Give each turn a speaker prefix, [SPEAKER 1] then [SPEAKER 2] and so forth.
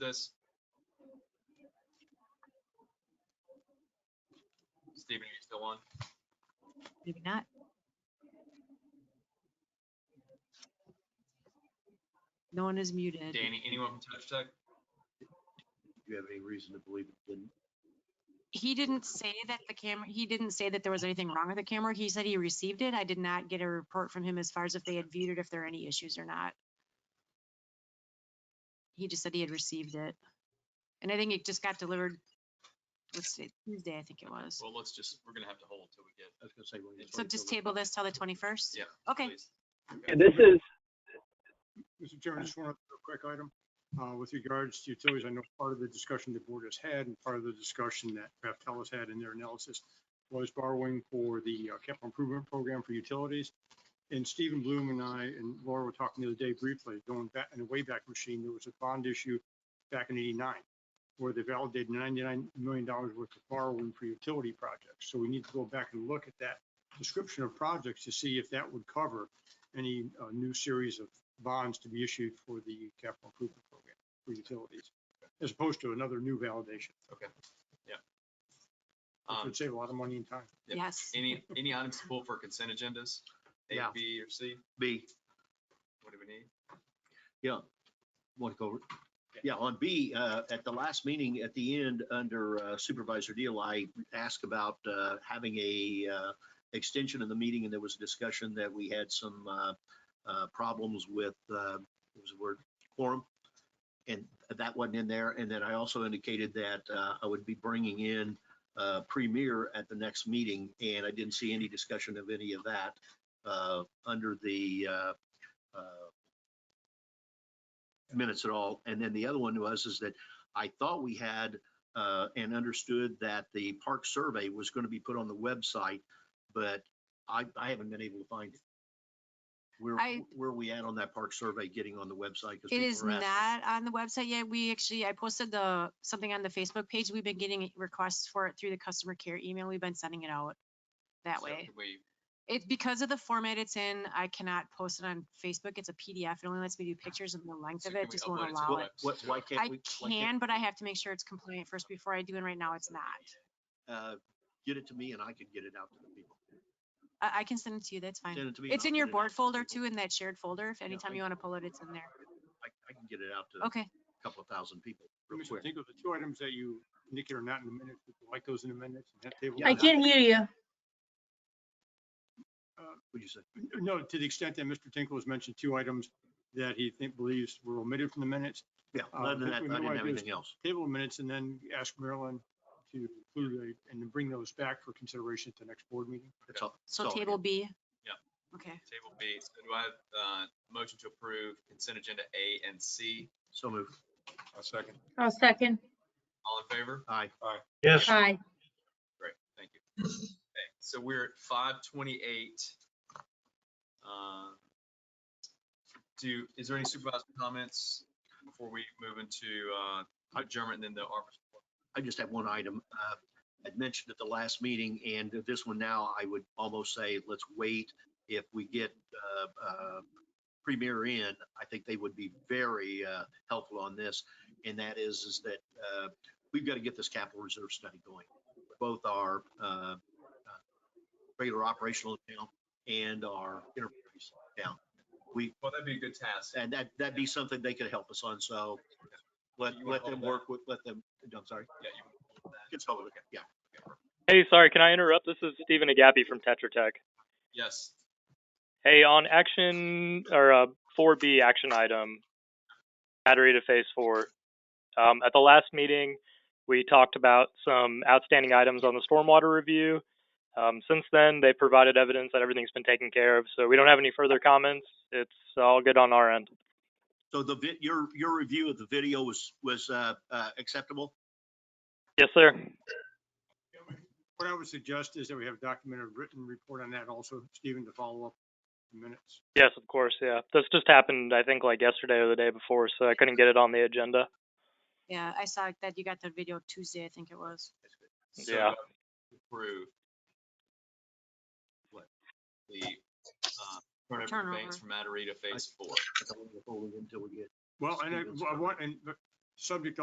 [SPEAKER 1] this? Steven, are you still on?
[SPEAKER 2] Mm-hmm. Maybe not. No one is muted.
[SPEAKER 1] Danny, anyone from Touch Tech?
[SPEAKER 3] Do you have any reason to believe it didn't?
[SPEAKER 2] He didn't say that the camera, he didn't say that there was anything wrong with the camera. He said he received it. I did not get a report from him as far as if they had viewed it, if there are any issues or not. He just said he had received it. And I think it just got delivered, let's see, Tuesday, I think it was.
[SPEAKER 1] Well, let's just, we're gonna have to hold till we get.
[SPEAKER 3] I was gonna say. we're gonna
[SPEAKER 2] So
[SPEAKER 3] wait
[SPEAKER 2] just
[SPEAKER 3] till the-
[SPEAKER 2] table this till the 21st?
[SPEAKER 1] Yeah.
[SPEAKER 2] Okay.
[SPEAKER 1] please.
[SPEAKER 4] And this is,
[SPEAKER 5] Mr. Chairman, just one other quick item uh, with regards to utilities. I know part of the discussion the board has had and part of the discussion that Bechtel has had in their analysis was borrowing for the uh, capital improvement program for utilities. And Stephen Bloom and I and Laura were talking the other day briefly, going back in the Wayback Machine, there was a bond issue back in 89 where they validated $99 million worth of borrowing for utility projects. So we need to go back and look at that description of projects to see if that would cover any uh, new series of bonds to be issued for the capital improvement program for utilities, as opposed to another new validation, which
[SPEAKER 1] Um,
[SPEAKER 5] would save a lot of money and time.
[SPEAKER 1] Yeah.
[SPEAKER 2] Yes.
[SPEAKER 1] Any, any items to pull for consent agendas? A,
[SPEAKER 3] Yeah.
[SPEAKER 1] B, or C?
[SPEAKER 3] B,
[SPEAKER 1] What do we need?
[SPEAKER 3] want to go, over- yeah, on B, uh, at the last meeting, at the end, under uh, Supervisor Deal, I asked about, uh, having a, uh, extension of the meeting and there was a discussion that we had some, uh, uh, problems with, uh, what was the word, quorum. And that wasn't in there. And then I also indicated that, uh, I would be bringing in, uh, Premier at the next meeting. And I didn't see any discussion of any of that, uh, under the, uh, uh, minutes at all. And then the other one was is that I thought we had uh, and understood that the park survey was going to be put on the website, but I, I haven't been able to find it. Where,
[SPEAKER 2] I-
[SPEAKER 3] where are we at on that park survey getting on the website? 'Cause
[SPEAKER 2] It
[SPEAKER 3] people
[SPEAKER 2] is
[SPEAKER 3] were asking.
[SPEAKER 2] not on the website yet. We actually, I posted the, something on the Facebook page. We've been getting requests for it through the customer care email. We've been sending it out that
[SPEAKER 1] So
[SPEAKER 2] way.
[SPEAKER 1] can We,
[SPEAKER 2] It's because of the format it's in, I cannot post it on Facebook. It's a PDF. It only lets me do pictures and the length
[SPEAKER 1] So
[SPEAKER 2] of
[SPEAKER 1] can
[SPEAKER 2] it
[SPEAKER 1] we
[SPEAKER 2] just
[SPEAKER 1] upload it
[SPEAKER 2] won't
[SPEAKER 1] to
[SPEAKER 2] allow
[SPEAKER 1] the
[SPEAKER 2] it.
[SPEAKER 1] web?
[SPEAKER 3] What, why can't
[SPEAKER 2] I
[SPEAKER 3] we? why can't-
[SPEAKER 2] can, but I have to make sure it's compliant first before I do, and right now it's not.
[SPEAKER 3] uh, Get it to me and I could get it out to the people.
[SPEAKER 2] I, I can send it to you. That's fine.
[SPEAKER 3] Send it to me. and
[SPEAKER 2] It's
[SPEAKER 3] I'll
[SPEAKER 2] in
[SPEAKER 3] get
[SPEAKER 2] your
[SPEAKER 3] it out
[SPEAKER 2] board
[SPEAKER 3] to the
[SPEAKER 2] folder
[SPEAKER 3] people.
[SPEAKER 2] too, in that shared folder. If anytime
[SPEAKER 3] I-
[SPEAKER 2] you want to pull it, it's in there.
[SPEAKER 3] I, I can get it out to
[SPEAKER 2] Okay.
[SPEAKER 3] a couple of thousand people real
[SPEAKER 5] Mr.
[SPEAKER 3] quick.
[SPEAKER 5] Tinkle, the two items that you indicate are not in the minutes, would you like those in the minutes? and have table
[SPEAKER 3] Yeah.
[SPEAKER 4] I
[SPEAKER 5] them?
[SPEAKER 4] can't hear you.
[SPEAKER 3] What'd you say?
[SPEAKER 5] No, to the extent that Mr. Tinkle has mentioned two items that he think believes were omitted from the minutes,
[SPEAKER 3] Yeah,
[SPEAKER 5] Uh,
[SPEAKER 3] other than
[SPEAKER 5] what
[SPEAKER 3] that, I
[SPEAKER 5] we might
[SPEAKER 3] didn't have
[SPEAKER 5] do is-
[SPEAKER 3] anything else.
[SPEAKER 5] table minutes and then ask Marilyn to include a- and to bring those back for consideration at the next board meeting.
[SPEAKER 3] That's all. that's
[SPEAKER 2] So
[SPEAKER 3] all I got.
[SPEAKER 2] table B.
[SPEAKER 1] Yeah.
[SPEAKER 2] Okay.
[SPEAKER 1] table B, so do I have, uh, motion to approve consent agenda A and C?
[SPEAKER 3] So move.
[SPEAKER 6] A second.
[SPEAKER 4] I'll second.
[SPEAKER 1] All in favor?
[SPEAKER 3] Aye.
[SPEAKER 6] Yes.
[SPEAKER 4] Aye.
[SPEAKER 1] Great, thank you. Okay, so we're at five twenty-eight. Um, Do, is there any supervisor comments before we move into uh, adjournment and then the ARPA?
[SPEAKER 3] I just have one item. Uh, I'd mentioned at the last meeting and this one now, I would almost say, let's wait. If we get uh, uh, Premier in, I think they would be very uh, helpful on this. And that is, is that uh, we've got to get this capital reserve study going. Both our uh, uh, regular operational account and our enterprise account. We,
[SPEAKER 1] Well, that'd be a good task.
[SPEAKER 3] and that, that'd be something they could help us on. So let,
[SPEAKER 1] You wanna
[SPEAKER 3] let
[SPEAKER 1] hold
[SPEAKER 3] them
[SPEAKER 1] that?
[SPEAKER 3] work with, let them, I'm sorry.
[SPEAKER 1] Yeah, you-
[SPEAKER 3] It's public, okay, yeah.
[SPEAKER 7] Hey, sorry, can I interrupt? This is Stephen Agapi from Tetra Tech.
[SPEAKER 1] Yes,
[SPEAKER 7] Hey, on action or uh, 4B action item, battery to phase four. Um, at the last meeting, we talked about some outstanding items on the stormwater review. Um, since then, they provided evidence that everything's been taken care of, so we don't have any further comments. It's all good on our end.
[SPEAKER 3] So the, vi- your, your review of the video was, was uh, uh, acceptable?
[SPEAKER 7] Yes, sir.
[SPEAKER 5] What I would suggest is that we have a documented written report on that also, Stephen, to follow up in minutes.
[SPEAKER 7] Yes, of course. Yeah, this just happened. I think like yesterday or the day before, so I couldn't get it on the agenda.
[SPEAKER 2] Yeah, I saw that you got the video Tuesday, I think it was.
[SPEAKER 1] so
[SPEAKER 7] Yeah.
[SPEAKER 1] approve. What? The uh, turnover
[SPEAKER 2] Turnover.
[SPEAKER 1] of banks from Matarita Phase Four.
[SPEAKER 3] I don't want to hold it Until we get
[SPEAKER 5] Well, and I
[SPEAKER 3] Stephen's
[SPEAKER 5] I
[SPEAKER 3] comment.
[SPEAKER 5] want, and but subject